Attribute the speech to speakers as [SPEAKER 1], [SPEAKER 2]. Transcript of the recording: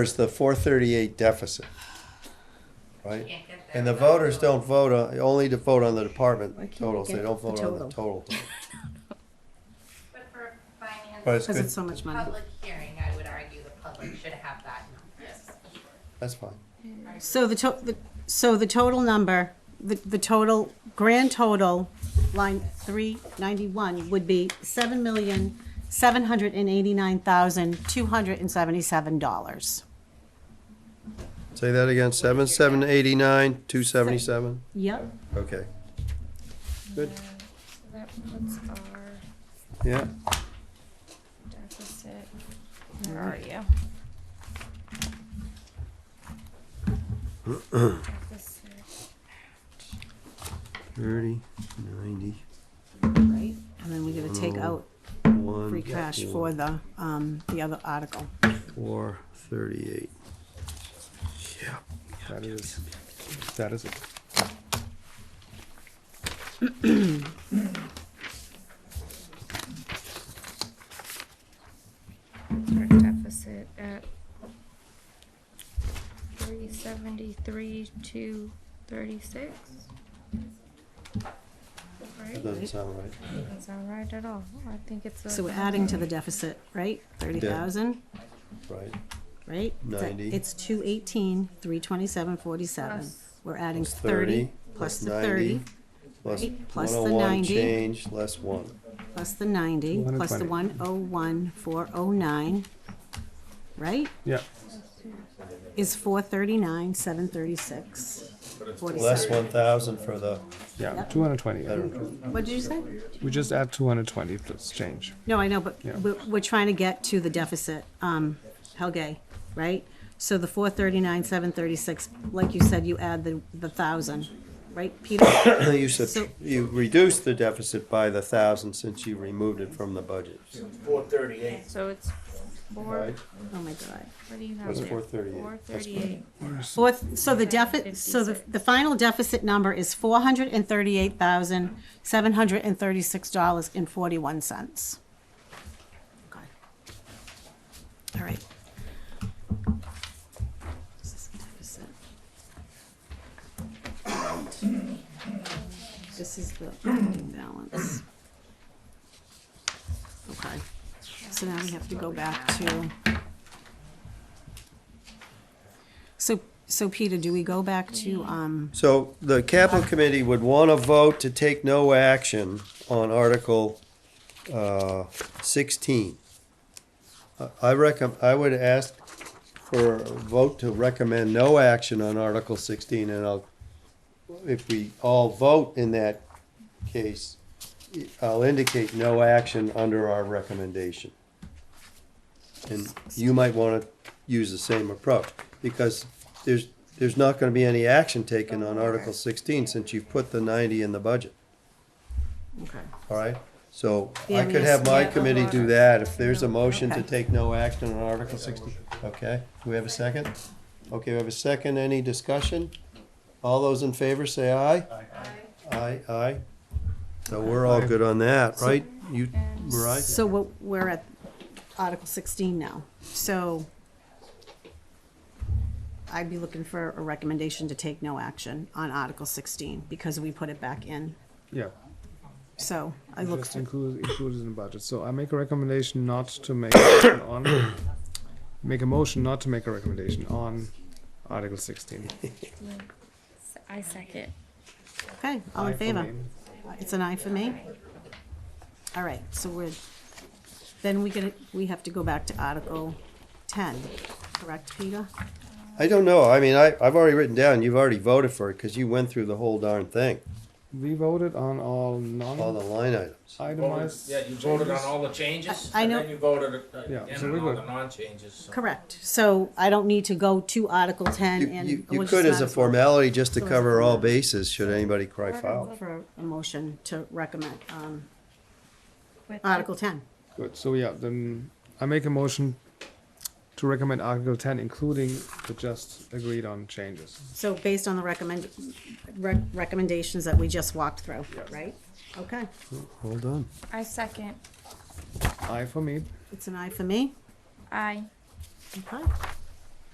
[SPEAKER 1] There's the four thirty-eight deficit, right?
[SPEAKER 2] Can't get there
[SPEAKER 1] And the
[SPEAKER 2] without
[SPEAKER 1] voters don't vote, on only to vote on the department
[SPEAKER 3] Why can't we
[SPEAKER 1] totals, they
[SPEAKER 3] get
[SPEAKER 1] don't
[SPEAKER 3] the
[SPEAKER 1] vote on the total.
[SPEAKER 2] But for finance.
[SPEAKER 1] But it's
[SPEAKER 3] Because
[SPEAKER 1] good.
[SPEAKER 3] it's so much money.
[SPEAKER 2] Public hearing, I would argue the public should have that number. Yes.
[SPEAKER 1] That's fine.
[SPEAKER 3] So the to, the, so the total number, the, the total, grand total, line three ninety-one would be seven million, seven hundred and eighty-nine thousand, two hundred and seventy-seven dollars.
[SPEAKER 1] Say that again, seven, seven eighty-nine, two seventy-seven,
[SPEAKER 3] Yep.
[SPEAKER 1] okay. Good,
[SPEAKER 4] That puts our
[SPEAKER 1] yeah,
[SPEAKER 4] deficit. Where are you? Deficit.
[SPEAKER 1] thirty, ninety,
[SPEAKER 3] Right, and then we're gonna take out
[SPEAKER 1] one.
[SPEAKER 3] free cash for the, um, the other article.
[SPEAKER 1] Four thirty-eight. Yeah, that is, that is it.
[SPEAKER 4] Our deficit at three seventy-three to thirty-six. Right?
[SPEAKER 1] That doesn't sound right.
[SPEAKER 4] Doesn't sound right at all. I think it's a.
[SPEAKER 3] So we're adding to the deficit, right? Thirty thousand,
[SPEAKER 1] Right,
[SPEAKER 3] right? Is that-
[SPEAKER 1] 90.
[SPEAKER 3] It's two eighteen, three twenty-seven, forty-seven.
[SPEAKER 4] Plus-
[SPEAKER 3] We're adding
[SPEAKER 1] Plus 30,
[SPEAKER 3] thirty,
[SPEAKER 1] plus
[SPEAKER 3] plus the
[SPEAKER 1] 90.
[SPEAKER 3] thirty,
[SPEAKER 1] plus
[SPEAKER 3] Right, plus
[SPEAKER 1] one
[SPEAKER 3] the
[SPEAKER 1] oh one
[SPEAKER 3] 90.
[SPEAKER 1] change, less one.
[SPEAKER 3] plus the ninety, plus the one oh one, four oh nine, right?
[SPEAKER 5] Yeah,
[SPEAKER 3] Is four thirty-nine, seven thirty-six,
[SPEAKER 1] Less
[SPEAKER 3] forty-seven.
[SPEAKER 1] one thousand for the
[SPEAKER 5] yeah,
[SPEAKER 3] Yep.
[SPEAKER 5] two hundred twenty.
[SPEAKER 1] veteran.
[SPEAKER 3] What did you say?
[SPEAKER 5] We just add two hundred twenty plus change.
[SPEAKER 3] No, I know, but
[SPEAKER 5] Yeah.
[SPEAKER 3] we're, we're trying to get to the deficit, um, Helge, right? So the four thirty-nine, seven thirty-six, like you said, you add the, the thousand, right, Peter? Oh
[SPEAKER 1] You
[SPEAKER 3] So-
[SPEAKER 1] said, you reduced the deficit by the thousand since you removed it from the budget.
[SPEAKER 6] Four thirty-eight.
[SPEAKER 4] So it's four,
[SPEAKER 1] Right.
[SPEAKER 3] Oh, my God.
[SPEAKER 4] what do you have
[SPEAKER 1] That's
[SPEAKER 4] there?
[SPEAKER 1] 438.
[SPEAKER 4] Four
[SPEAKER 1] That's
[SPEAKER 4] thirty-eight.
[SPEAKER 3] Fourth, so the deficit, so the, the final deficit number is four hundred and thirty-eight thousand, seven hundred and thirty-six dollars and forty-one cents. All right. This is the deficit. This is the ending balance. Okay, so now we have to go back to. So, so Peter, do we go back to, um,
[SPEAKER 1] So the capital committee would want to vote to take no action on Article uh, sixteen. I- I recomm, I would ask for a vote to recommend no action on Article sixteen, and I'll, if we all vote in that case, I'll indicate no action under our recommendation. And you might want to use the same approach, because there's, there's not going to be any action taken on Article sixteen since you've put the ninety in the budget,
[SPEAKER 3] okay.
[SPEAKER 1] all right? So
[SPEAKER 3] Yeah,
[SPEAKER 1] I
[SPEAKER 3] we
[SPEAKER 1] could have my
[SPEAKER 3] just-
[SPEAKER 1] committee do that, if there's a motion to
[SPEAKER 3] Okay.
[SPEAKER 1] take no action on Article sixteen, okay? Do we have a second? Okay, we have a second, any discussion? All those in favor say aye? Aye. Aye, aye. So we're all good on that, right? You, right?
[SPEAKER 3] So what, we're at Article sixteen now, so I'd be looking for a recommendation to take no action on Article sixteen, because we put it back in,
[SPEAKER 5] Yeah,
[SPEAKER 3] so I look
[SPEAKER 5] just
[SPEAKER 3] for,
[SPEAKER 5] include, included in the budget. So I make a recommendation not to make action on, make a motion not to make a recommendation on Article sixteen.
[SPEAKER 4] I second.
[SPEAKER 3] okay, all
[SPEAKER 5] Aye
[SPEAKER 3] in
[SPEAKER 5] for
[SPEAKER 3] favor?
[SPEAKER 5] me.
[SPEAKER 3] It's an aye for me? All right, so we're, then we get, we have to go back to Article ten, correct, Peter?
[SPEAKER 1] I don't know. I mean, I, I've already written down, you've already voted for it because you went through the whole darn thing,
[SPEAKER 5] We voted on all
[SPEAKER 1] all the
[SPEAKER 5] non
[SPEAKER 1] line items.
[SPEAKER 5] itemized.
[SPEAKER 6] Yeah, you voted on all the changes?
[SPEAKER 3] I- I know-
[SPEAKER 6] And then you voted uh,
[SPEAKER 5] Yeah,
[SPEAKER 6] again
[SPEAKER 5] so
[SPEAKER 6] on
[SPEAKER 5] we're
[SPEAKER 6] all
[SPEAKER 5] good.
[SPEAKER 6] the non-changes, so.
[SPEAKER 3] Correct, so I don't need to go to Article ten
[SPEAKER 1] You,
[SPEAKER 3] and.
[SPEAKER 1] you,
[SPEAKER 3] we'll
[SPEAKER 1] you
[SPEAKER 3] just
[SPEAKER 1] could as
[SPEAKER 3] not-
[SPEAKER 1] a formality, just to
[SPEAKER 3] So it's
[SPEAKER 1] cover
[SPEAKER 3] a
[SPEAKER 1] all
[SPEAKER 3] formal-
[SPEAKER 1] bases, should anybody cry foul.
[SPEAKER 3] Look For a motion to recommend, um,
[SPEAKER 4] With the-
[SPEAKER 3] Article ten.
[SPEAKER 5] Good, so yeah, then I make a motion to recommend Article ten, including the just agreed on changes.
[SPEAKER 3] So based on the recommend, rec- recommendations that we just walked through,
[SPEAKER 5] Yes.
[SPEAKER 3] right? Okay,
[SPEAKER 1] Well done.
[SPEAKER 4] I second.
[SPEAKER 5] Aye for me.
[SPEAKER 3] it's an aye for me.
[SPEAKER 4] I.
[SPEAKER 3] Okay.